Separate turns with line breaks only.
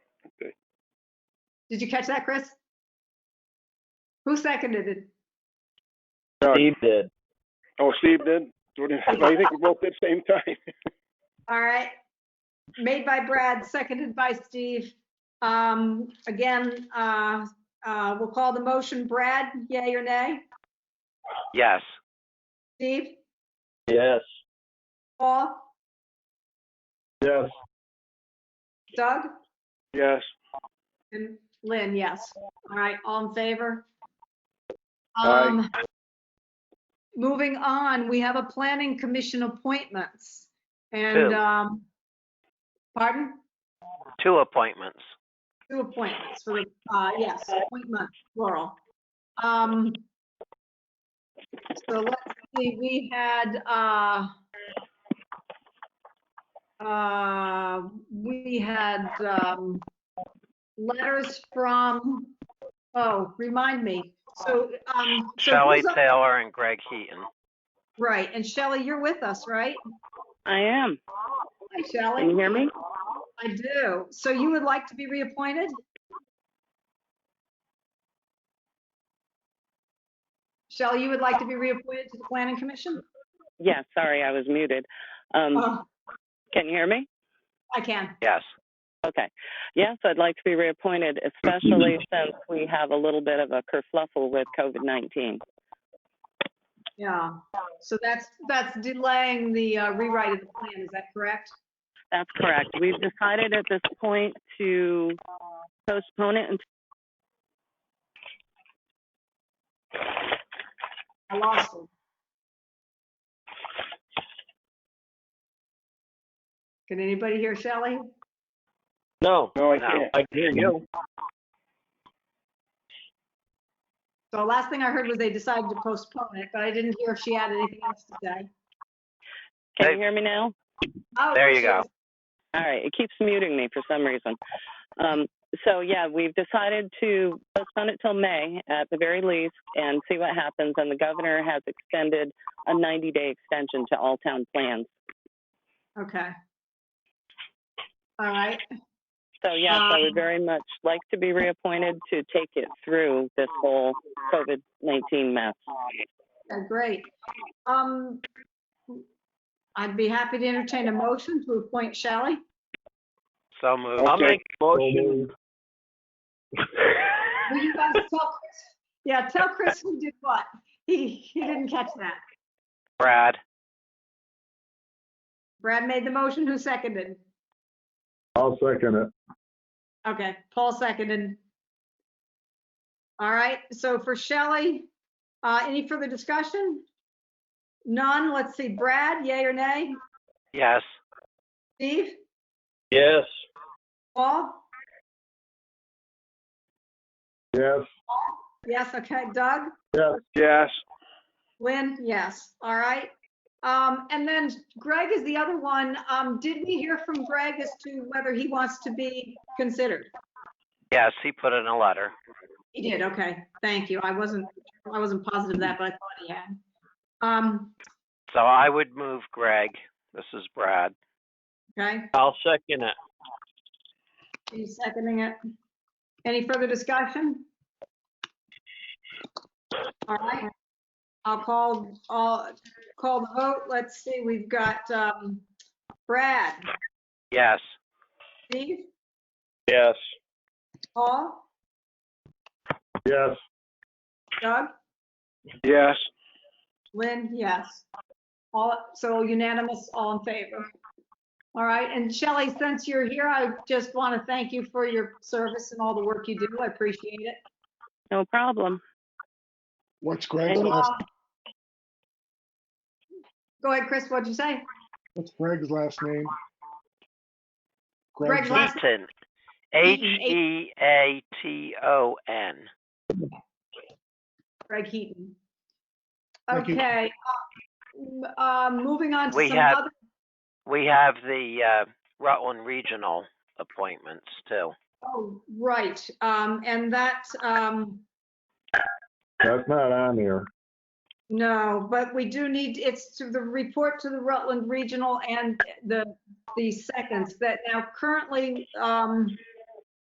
Did you catch that, Chris? Who seconded it?
Steve did.
Oh, Steve did? So did- I think we both did same time.
All right. Made by Brad, seconded by Steve. Um, again, uh, uh, we'll call the motion. Brad, yay or nay?
Yes.
Steve?
Yes.
Paul?
Yes.
Doug?
Yes.
And Lynn, yes. All right, all in favor?
Aye.
Um, Moving on, we have a planning commission appointments. And,
Two.
um, pardon?
Two appointments.
Two appointments for, the uh, yes, appointment, plural. Um, so let's see, we had, uh, uh, we had, um, letters from, oh, remind me, so, um. so
Shelley
who's up-
Taylor and Greg Heaton.
Right, and Shelley, you're with us, right?
I am.
Hi,
Can you
Shelley.
hear me?
I do. So you would like to be reappointed? Shelley, you would like to be reappointed to the planning commission?
Yeah, sorry, I was muted. Um,
Oh,
can you hear me?
I can.
Yes.
Okay. Yes, I'd like to be reappointed, especially since we have a little bit of a kerfluffle with COVID-19.
Yeah. So that's, that's delaying the uh, rewrite of the plan. Is that correct?
That's correct. We've decided at this point to postpone it. until-
I lost it. Can anybody hear Shelley?
No,
No, I
No.
can't.
I can hear you.
So the last thing I heard was they decided to postpone it, but I didn't hear if she had anything else to say.
Can you hear me now?
Oh,
There you
she
go.
is.
All right, it keeps muting me for some reason. Um, so yeah, we've decided to postpone it till May at the very least and see what happens. And the governor has extended a 90-day extension to all town plans.
Okay. All right,
So yes, I
Um,
would very much like to be reappointed to take it through this whole COVID-19 mess.
yeah, great. Um, I'd be happy to entertain a motion to appoint Shelley.
So moved.
I'll
Okay.
make a motion.
Will you guys tell Chris? Yeah, tell Chris who did what. He, he didn't catch that.
Brad.
Brad made the motion, who seconded?
I'll second it.
Okay, Paul seconded. All right, so for Shelley, uh, any further discussion? None, let's see, Brad, yay or nay?
Yes.
Steve?
Yes.
Paul?
Yes,
Yes, okay, Doug?
yes,
Yes.
Lynn, yes, all right. Um, and then Greg is the other one. Um, did we hear from Greg as to whether he wants to be considered?
Yes, he put in a letter.
He did, okay, thank you. I wasn't, I wasn't positive of that, but I thought he had. Um,
So I would move Greg. This is Brad.
okay,
I'll second it.
he's seconding it. Any further discussion? All right, I'll call, I'll call the vote. Let's see, we've got, um, Brad,
Yes.
Steve,
Yes.
Paul,
yes,
Doug?
Yes.
Lynn, yes. All, so unanimous, all in favor. All right, and Shelley, since you're here, I just want to thank you for your service and all the work you do. I appreciate it.
No problem.
What's Greg's
And,
last,
Um, Go ahead, Chris, what'd you say?
what's Greg's last name?
Greg's
Greg,
last-
Heaton. H
Heaton, H-
E A T O N.
Greg Heaton.
Thank you.
Okay. uh, um, Moving on to
We
some
have-
other,
We have the uh, Rutland Regional appointments too.
oh, right, um, and that, um,
that's not on here.
No, but we do need, it's to the report to the Rutland Regional and the, the seconds that now currently, um,